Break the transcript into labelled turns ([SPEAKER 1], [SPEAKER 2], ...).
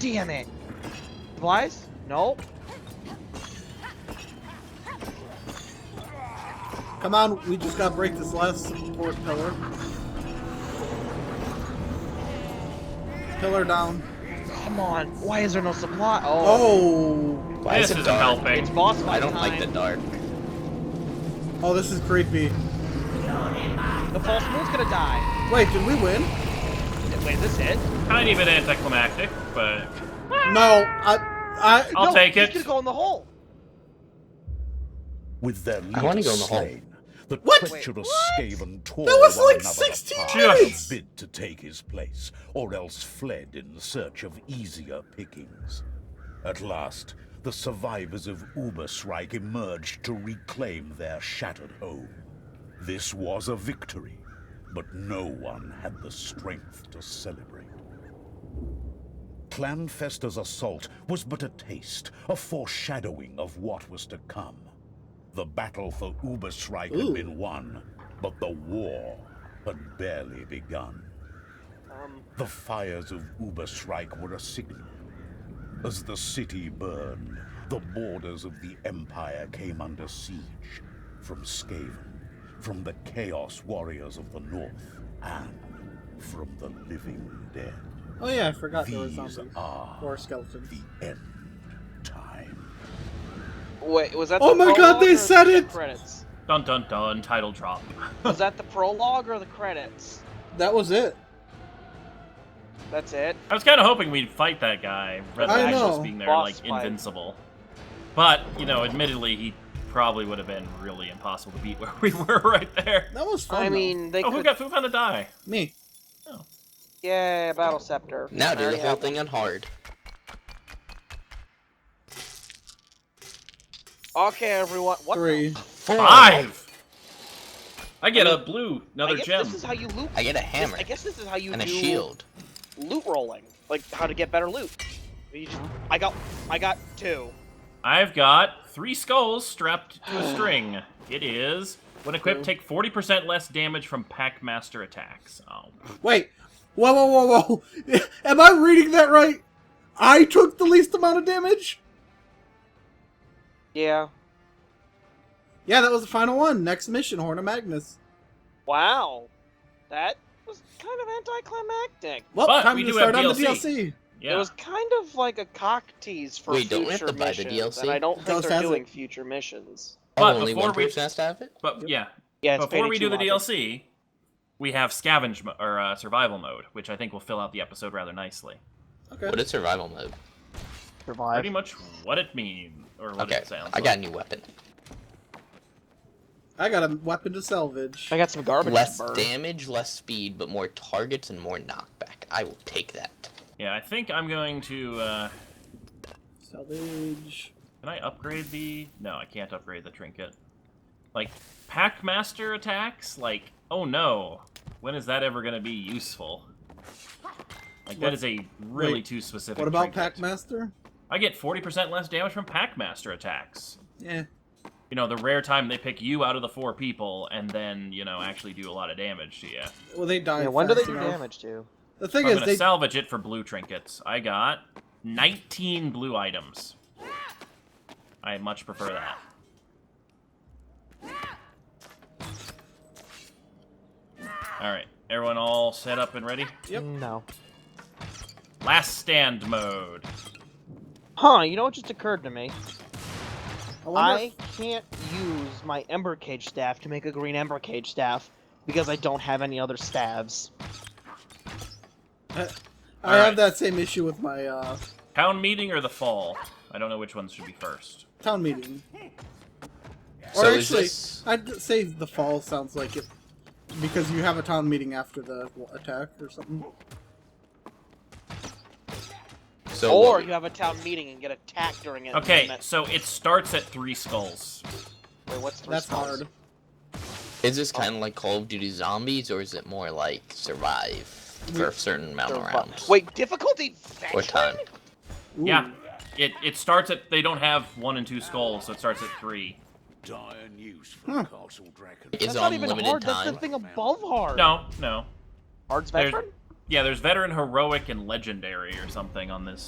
[SPEAKER 1] Damn it. Supplies? Nope.
[SPEAKER 2] Come on, we just gotta break this last support pillar. Pillar down.
[SPEAKER 1] Come on. Why is there no supply? Oh.
[SPEAKER 2] Oh,
[SPEAKER 3] Why is
[SPEAKER 4] this
[SPEAKER 3] it
[SPEAKER 4] isn't
[SPEAKER 3] dark?
[SPEAKER 1] It's
[SPEAKER 4] helping.
[SPEAKER 1] boss fight
[SPEAKER 3] I don't like the
[SPEAKER 1] time.
[SPEAKER 3] dark.
[SPEAKER 2] oh, this is creepy.
[SPEAKER 1] The false moon's gonna die.
[SPEAKER 2] Wait, did we win?
[SPEAKER 1] Wait, is this it?
[SPEAKER 4] Kind of an anticlimactic, but
[SPEAKER 2] No, I, I.
[SPEAKER 4] I'll
[SPEAKER 1] No,
[SPEAKER 4] take
[SPEAKER 1] he's
[SPEAKER 4] it.
[SPEAKER 1] gonna go in the hole.
[SPEAKER 5] With their leader
[SPEAKER 3] I wanna go in the hole.
[SPEAKER 5] slain, the
[SPEAKER 2] What?
[SPEAKER 5] treacherous
[SPEAKER 1] Wait,
[SPEAKER 5] Skaven tore
[SPEAKER 2] That was
[SPEAKER 5] one
[SPEAKER 2] like
[SPEAKER 5] another
[SPEAKER 2] 16
[SPEAKER 5] apart,
[SPEAKER 4] minutes!
[SPEAKER 5] bid to take his place, or else fled in search of easier pickings. At last, the survivors of Uberstrike emerged to reclaim their shattered home. This was a victory, but no one had the strength to celebrate. Clanfester's assault was but a taste, a foreshadowing of what was to come. The battle for Uberstrike
[SPEAKER 2] Ooh.
[SPEAKER 5] had been won, but the war had barely begun.
[SPEAKER 1] Um.
[SPEAKER 5] The fires of Uberstrike were a signal. As the city burned, the borders of the Empire came under siege from Skaven, from the Chaos Warriors of the North, and from the living dead.
[SPEAKER 2] Oh yeah, I forgot there was
[SPEAKER 5] These
[SPEAKER 2] zombies
[SPEAKER 5] are
[SPEAKER 2] or skeletons.
[SPEAKER 5] the end time.
[SPEAKER 1] Wait, was that
[SPEAKER 2] Oh
[SPEAKER 1] the
[SPEAKER 2] my God,
[SPEAKER 1] prologue
[SPEAKER 2] they
[SPEAKER 1] or
[SPEAKER 2] said
[SPEAKER 1] the
[SPEAKER 2] it!
[SPEAKER 1] Credits.
[SPEAKER 4] dun dun dun, title drop.
[SPEAKER 1] Was that the prologue or the credits?
[SPEAKER 2] That was it.
[SPEAKER 1] That's it.
[SPEAKER 4] I was kind of hoping we'd fight that guy, rather
[SPEAKER 2] I
[SPEAKER 4] than
[SPEAKER 2] know.
[SPEAKER 4] just being there
[SPEAKER 1] Boss
[SPEAKER 4] like
[SPEAKER 1] fight.
[SPEAKER 4] invincible. But you know, admittedly, he probably would have been really impossible to beat where we were right there.
[SPEAKER 2] That was fun.
[SPEAKER 1] I
[SPEAKER 2] though.
[SPEAKER 1] mean, they
[SPEAKER 4] Oh, who
[SPEAKER 1] could.
[SPEAKER 4] got who found a die? Oh.
[SPEAKER 2] me.
[SPEAKER 1] Yeah, battle scepter.
[SPEAKER 3] Now do
[SPEAKER 1] Alright,
[SPEAKER 3] the
[SPEAKER 1] yeah.
[SPEAKER 3] whole thing on hard.
[SPEAKER 1] Okay, everyone. What? the-
[SPEAKER 2] Three.
[SPEAKER 4] Five. I get a blue, another
[SPEAKER 1] I guess
[SPEAKER 4] gem.
[SPEAKER 1] This is how you loot.
[SPEAKER 3] I get a
[SPEAKER 1] this-
[SPEAKER 3] hammer
[SPEAKER 1] I guess this is how you
[SPEAKER 3] and a
[SPEAKER 1] do
[SPEAKER 3] shield.
[SPEAKER 1] loot rolling, like how to get better loot. You just- I got, I got two.
[SPEAKER 4] I've got three skulls strapped to a string. It is when equipped, take 40% less damage from Packmaster attacks. Oh,
[SPEAKER 2] Wait. Whoa, whoa, whoa, whoa. Am I reading that right? I took the least amount of damage?
[SPEAKER 1] Yeah.
[SPEAKER 2] Yeah, that was the final one. Next mission, Horn of Magnus.
[SPEAKER 1] Wow. That was kind of anticlimactic.
[SPEAKER 2] Well,
[SPEAKER 4] But
[SPEAKER 2] time
[SPEAKER 4] we
[SPEAKER 2] to
[SPEAKER 4] do
[SPEAKER 2] start
[SPEAKER 4] have
[SPEAKER 2] on the
[SPEAKER 4] DLC.
[SPEAKER 2] DLC.
[SPEAKER 4] yeah.
[SPEAKER 1] It was kind of like a cock tease for
[SPEAKER 3] Wait,
[SPEAKER 1] future
[SPEAKER 3] don't we have to buy the
[SPEAKER 1] missions,
[SPEAKER 3] DLC?
[SPEAKER 1] and I don't think
[SPEAKER 2] Ghost
[SPEAKER 1] they're
[SPEAKER 2] has it.
[SPEAKER 1] doing future missions.
[SPEAKER 4] But
[SPEAKER 3] only
[SPEAKER 4] before
[SPEAKER 3] one
[SPEAKER 4] we-
[SPEAKER 3] person has to have it.
[SPEAKER 4] But yeah,
[SPEAKER 1] Yeah, it's
[SPEAKER 4] before
[SPEAKER 1] Payday
[SPEAKER 4] we
[SPEAKER 1] 2
[SPEAKER 4] do the
[SPEAKER 1] logic.
[SPEAKER 4] DLC, we have scavenge mo- or uh, survival mode, which I think will fill out the episode rather nicely.
[SPEAKER 3] What
[SPEAKER 2] Okay.
[SPEAKER 3] is survival mode?
[SPEAKER 4] Pretty much what it means or what
[SPEAKER 3] Okay,
[SPEAKER 4] it sounds.
[SPEAKER 3] I got a new weapon.
[SPEAKER 2] I got a weapon to salvage.
[SPEAKER 1] I got some garbage.
[SPEAKER 3] Less
[SPEAKER 1] to burn.
[SPEAKER 3] damage, less speed, but more targets and more knockback. I will take that.
[SPEAKER 4] like. Yeah, I think I'm going to. Uh,
[SPEAKER 2] Salvage.
[SPEAKER 4] can I upgrade the? No, I can't upgrade the trinket. Like Packmaster attacks. Like, oh no, when is that ever going to be useful? Like
[SPEAKER 2] What-
[SPEAKER 4] that is a really
[SPEAKER 2] wait,
[SPEAKER 4] too specific.
[SPEAKER 2] What about
[SPEAKER 4] trinket.
[SPEAKER 2] Packmaster?
[SPEAKER 4] I get 40% less damage from Packmaster attacks.
[SPEAKER 2] Yeah.
[SPEAKER 4] you know, the rare time they pick you out of the four people and then, you know, actually do a lot of damage to you.
[SPEAKER 2] Well, they die.
[SPEAKER 1] Yeah, when do they
[SPEAKER 2] fast
[SPEAKER 1] do
[SPEAKER 2] enough.
[SPEAKER 1] damage to?
[SPEAKER 2] The thing
[SPEAKER 4] I'm
[SPEAKER 2] is,
[SPEAKER 4] gonna
[SPEAKER 2] they.
[SPEAKER 4] salvage it for blue trinkets. I got 19 blue items. I much prefer that. Alright, everyone all set up and ready?
[SPEAKER 2] Yep.
[SPEAKER 1] No.
[SPEAKER 4] Last stand mode.
[SPEAKER 1] Huh? You know what just occurred to me?
[SPEAKER 2] I wonder
[SPEAKER 1] I can't use my Ember Cage staff to make a green Ember Cage staff because I don't have any other staves.
[SPEAKER 2] if- I, I
[SPEAKER 4] Alright.
[SPEAKER 2] have that same issue with my uh,
[SPEAKER 4] Town meeting or the fall? I don't know which ones should be first.
[SPEAKER 2] town meeting. Or
[SPEAKER 3] So is
[SPEAKER 2] actually,
[SPEAKER 3] this-
[SPEAKER 2] I'd say the fall sounds like it because you have a town meeting after the w- attack or something.
[SPEAKER 3] So
[SPEAKER 1] or
[SPEAKER 3] what-
[SPEAKER 1] you have a town meeting and get attacked during it.
[SPEAKER 4] Okay,
[SPEAKER 1] and that-
[SPEAKER 4] so it starts at three skulls.
[SPEAKER 1] Wait, what's three
[SPEAKER 2] That's
[SPEAKER 1] spells?
[SPEAKER 2] hard.
[SPEAKER 3] is this kind of like Call of Duty Zombies, or is it more like survive for a certain amount
[SPEAKER 1] They're
[SPEAKER 3] of
[SPEAKER 1] rough.
[SPEAKER 3] rounds?
[SPEAKER 1] Wait, difficulty
[SPEAKER 3] Or
[SPEAKER 1] veteran?
[SPEAKER 3] time.
[SPEAKER 2] Ooh.
[SPEAKER 4] Yeah, it it starts at they don't have one and two skulls, so it starts at three.
[SPEAKER 5] Dire news for Castle Dragon.
[SPEAKER 3] Is
[SPEAKER 1] Hmm. That's not even
[SPEAKER 3] unlimited
[SPEAKER 1] hard.
[SPEAKER 3] time.
[SPEAKER 1] That's the thing above hard.
[SPEAKER 4] No, no.
[SPEAKER 1] Hard's
[SPEAKER 4] There's-
[SPEAKER 1] veteran?
[SPEAKER 4] yeah, there's veteran, heroic, and legendary or something on this